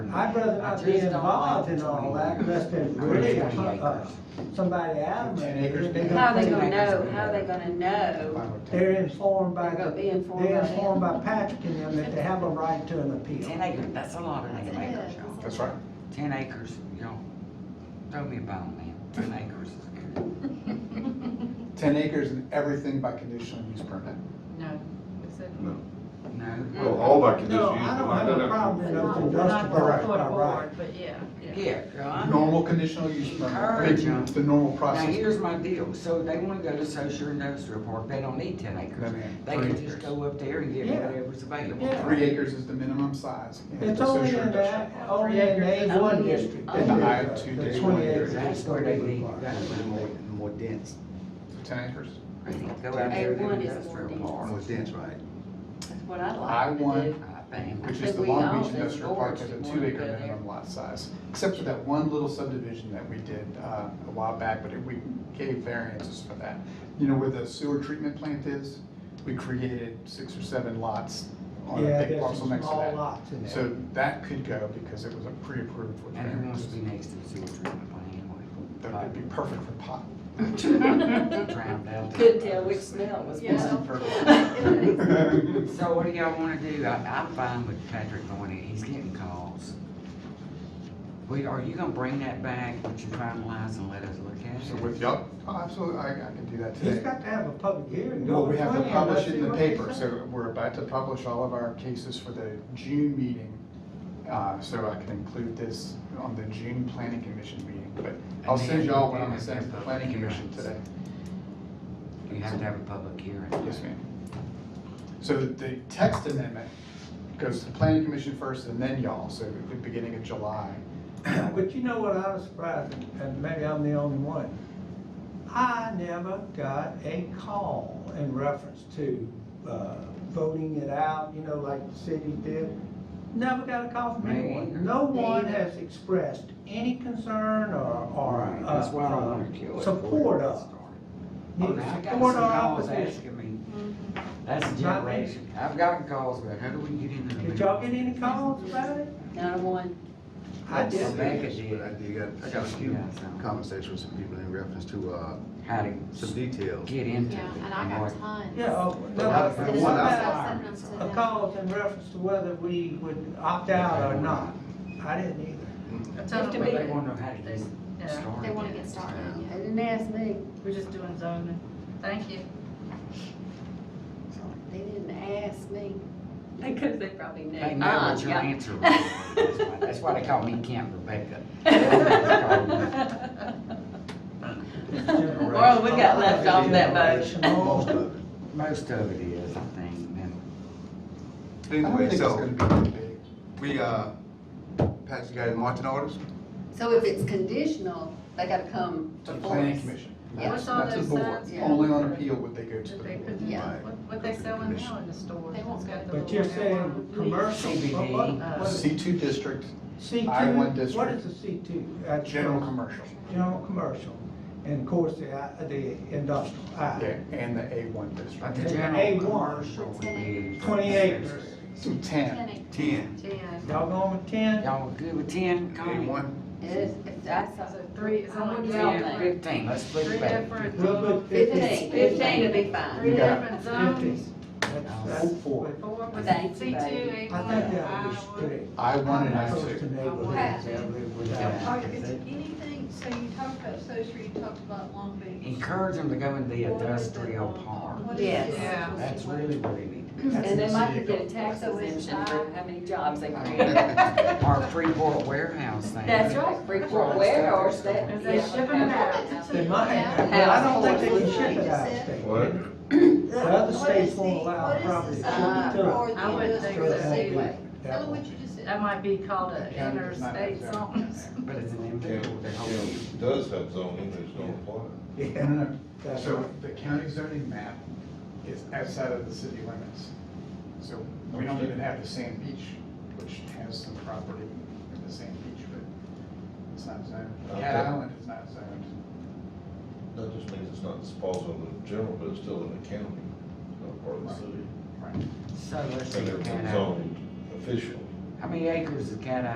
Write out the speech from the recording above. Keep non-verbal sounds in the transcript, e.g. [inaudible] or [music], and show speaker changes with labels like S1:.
S1: I'd rather not be
S2: I just don't like
S1: involved in all that, unless there's
S2: I really
S1: really,
S2: don't like
S1: uh, somebody out
S3: Ten acres.
S1: there.
S3: How
S4: How they gonna know, how they gonna know?
S1: They're informed by,
S4: They're gonna be
S1: the-
S4: informed
S1: they're
S4: by them.
S1: informed by Patrick and them that they have a right to an
S2: Ten
S1: appeal.
S2: acres, that's a lot of ten acres, y'all.
S3: That's right.
S2: Ten acres, y'all. Throw me a bone, man. Ten acres is good.
S3: Ten acres and everything by conditional use permit.
S5: No, except.
S2: No.
S6: Oh,
S7: Well, all by
S1: No,
S7: conditional use.
S1: I
S7: but
S1: don't have a
S7: that-
S1: problem with those
S5: We're not
S1: industrial
S5: going
S1: rights
S5: for
S1: by
S5: the
S1: right.
S5: board, but yeah, yeah.
S2: Yeah, y'all.
S3: Normal conditional use permit, I
S2: Encourage 'em.
S3: mean, the normal
S2: Now,
S3: process.
S2: here's my deal. So they wanna go to social industrial park, they don't need ten acres.
S3: Then
S2: They
S3: three
S2: can just
S3: acres.
S2: go up there and get
S1: Yeah.
S2: whatever's available.
S1: Yeah.
S3: Three acres is the minimum size. in
S1: It's
S3: the
S1: only
S3: social
S1: in
S3: industrial.
S1: that, only in the A one district.
S3: In the I two
S1: The
S3: day
S1: 20
S3: one
S1: acres
S3: district.
S1: is
S2: That's where
S1: gonna
S2: they
S1: be
S2: need,
S1: required.
S2: that's where they need.
S6: More dense,
S3: Ten acres.
S2: I think Go out there to
S4: A1 is
S2: industrial
S4: more
S2: park.
S6: more dense, right?
S4: That's what I'd
S3: I
S4: like to
S3: one,
S4: do.
S2: I think.
S3: which
S4: But
S3: is the
S4: we
S3: Long
S4: all
S3: Beach
S4: said
S3: Industrial Park,
S4: boards
S3: has a
S4: would
S3: two
S4: wanna
S3: acre
S4: go there.
S3: minimum lot size. Except for that one little subdivision that we did uh, a while back, but it- we gave variances for that. You know where the sewer treatment plant is? We created six or seven lots on
S1: Yeah,
S3: a big
S1: there's
S3: parcel
S1: some
S3: next to
S1: small
S3: that.
S1: lots in there.
S3: So that could go because it was a pre-approved with
S2: And who wants to
S3: variances.
S2: be next to the sewer treatment plant anyway?
S3: That would be perfect for pot.
S4: [laughs]
S2: Drowned out.
S4: Could tell which smell was
S5: [laughs] Yeah.
S4: coming.
S6: [laughs]
S2: So what do y'all wanna do? I, I'm fine with Patrick going in, he's getting calls. Wait, are you gonna bring that back, what you finalize and let us look at
S3: So
S2: it?
S3: with, yup, oh, absolutely, I I can do that
S1: He's
S3: today.
S1: got to have a public hearing.
S3: Well, we
S1: going
S3: have to
S1: plan.
S3: publish
S1: Let's
S3: it
S1: see
S3: in the
S1: what they
S3: paper,
S1: say.
S3: so we're about to publish all of our cases for the June meeting. Uh, so I can include this on the June planning commission meeting, but I'll
S2: And
S3: send
S2: then-
S3: y'all what I'm gonna send to the planning commission today.
S2: You have to have a public hearing.
S3: Yes, ma'am. So the text amendment goes to the planning commission first and then y'all, so at the beginning of July.
S1: But you know what, I was surprised, and maybe I'm the only one. I never got a call in reference to, uh, voting it out, you know, like the city did. Never got a call from
S2: Me either.
S1: anyone. No one
S4: either.
S1: has expressed any concern or, or,
S2: Alright, that's why I don't
S1: uh,
S2: wanna kill it.
S1: support
S2: us.
S1: of.
S2: Oh,
S1: neither
S2: now I got some
S1: support or
S2: calls
S1: opposition.
S2: asking me, that's a
S1: Not me.
S2: generation, I've gotten calls, but how do we get into the?
S1: Did y'all get any calls about it?
S4: Not a one.
S1: I
S6: Yes,
S1: did.
S2: Rebecca
S6: yes,
S2: did.
S6: but I did, got- I got a
S2: She
S6: few
S2: got some.
S6: conversations with some people in reference to, uh,
S2: How to
S6: some details.
S2: get into it.
S8: Yeah, and I
S2: what-
S8: got tons.
S1: Yeah, oh, no, but
S6: I- I-
S1: it's
S6: what I-
S1: about
S8: Sending them to
S1: a
S8: them.
S1: call in reference to whether we would opt out or not. I didn't
S4: [laughs]
S1: either.
S5: I
S4: Have
S5: told
S4: to
S5: them,
S4: be-
S2: But they
S5: we-
S2: wanna know how to get
S5: yeah,
S2: started.
S8: They wanna get started,
S4: They
S8: yeah.
S4: didn't ask me.
S5: we're just doing zoning. Thank you.
S4: They didn't ask me. Because they probably knew.
S2: They know what your
S4: Ah, Yeah.
S2: answer was. That's why- That's why they call me Camp Rebecca.
S4: [laughs]
S2: That's
S4: Well, we got left off that
S6: Most
S1: boat.
S6: of it.
S2: called- Most of it is, I think, and
S3: I don't
S6: Anyway,
S3: think it's gonna
S6: so
S3: be that big.
S6: we, uh, Pat, you got any marching orders?
S4: So if it's conditional, they gotta come
S3: To the
S4: before
S3: planning
S4: us.
S3: commission.
S4: Yeah.
S3: That's
S5: What's all
S3: that's the
S5: those uh,
S3: board.
S5: signs?
S3: Only on appeal would they go to
S5: That
S3: the
S5: they
S3: board.
S5: put,
S4: Yeah.
S5: what, what they selling now in the store?
S8: They won't go.
S1: But you're saying
S3: [laughs]
S1: commercial, but what, what,
S3: C two district,
S1: C
S3: I
S1: two,
S3: one
S1: what
S3: district.
S1: is a C two?
S3: general commercial.
S1: General commercial, and of course, the, I- the industrial,
S3: Yeah,
S1: I,
S3: and the A one
S2: but
S3: district.
S2: the
S1: Okay.
S2: general
S1: A1.
S2: commercial would be.
S1: twenty acres.
S3: So ten.
S8: Ten acres.
S6: Ten.
S1: Y'all going with ten?
S2: Y'all good with ten, Connie?
S6: Anyone?
S4: It's, it's, I saw.
S5: So three, is that
S4: I
S5: what
S4: would
S5: you
S4: tell
S2: Ten,
S4: them.
S2: fifteen, let's split
S5: Three
S2: it back.
S5: different,
S1: We'll put
S5: zones,
S1: fifteen.
S4: Fifteen, fifteen would be fine.
S5: three
S3: You got
S5: different
S1: Fifteen.
S5: zones,
S1: That's- that's-
S3: Four.
S5: four was
S4: Thank
S5: C
S4: you,
S5: two,
S4: baby.
S5: A
S1: I
S5: one,
S1: think that
S5: I
S1: was
S5: one.
S1: three.
S3: I one and
S1: I'm
S3: I
S1: opposed to
S3: two.
S1: neighborhoods that live
S2: Yeah.
S1: without.
S9: Are, is anything, so you talked about social, you talked about Long Beach.
S2: Encourage them to go into the industrial
S9: What
S2: park.
S9: is
S4: Yes.
S9: it?
S5: Yeah.
S2: That's really what they need.
S4: And they might could get
S3: That's [laughs]
S4: a tax
S9: So it's
S4: exemption for
S9: five.
S4: how many jobs they create.
S6: That's
S2: Our Freeport warehouse thing.
S4: That's right, Freeport warehouse, that.
S5: Is they shipping it out?
S1: They might, but I don't think they can ship it out of state.
S7: What?
S1: The other states won't allow property shipped
S4: uh,
S1: to it.
S5: I would think
S1: So it
S5: so.
S1: won't be-
S4: Anyway.
S1: that
S9: Tell me
S1: won't
S9: what you just said.
S5: That might be called an
S3: Yeah, it's not
S5: interstate
S3: exactly.
S5: zone.
S2: But it's an
S7: Kim,
S2: individual, they hold you.
S7: Kim does have zoning, but it's not apply.
S1: be-
S3: No,
S1: Yeah,
S3: no, no.
S1: that's
S3: So
S1: right.
S3: the county zoning map is outside of the city limits. So we don't even have the sand beach, which has some property in the sand beach, but it's not zoned. Cat
S7: Okay.
S3: Island is not zoned.
S7: That just means it's not disposed of in general, but it's still in the county, not part of the city.
S3: Right.
S2: So let's
S7: So
S2: see,
S7: it's
S2: Cat Eye.
S7: zoned officially.
S2: how many acres is Cat Eye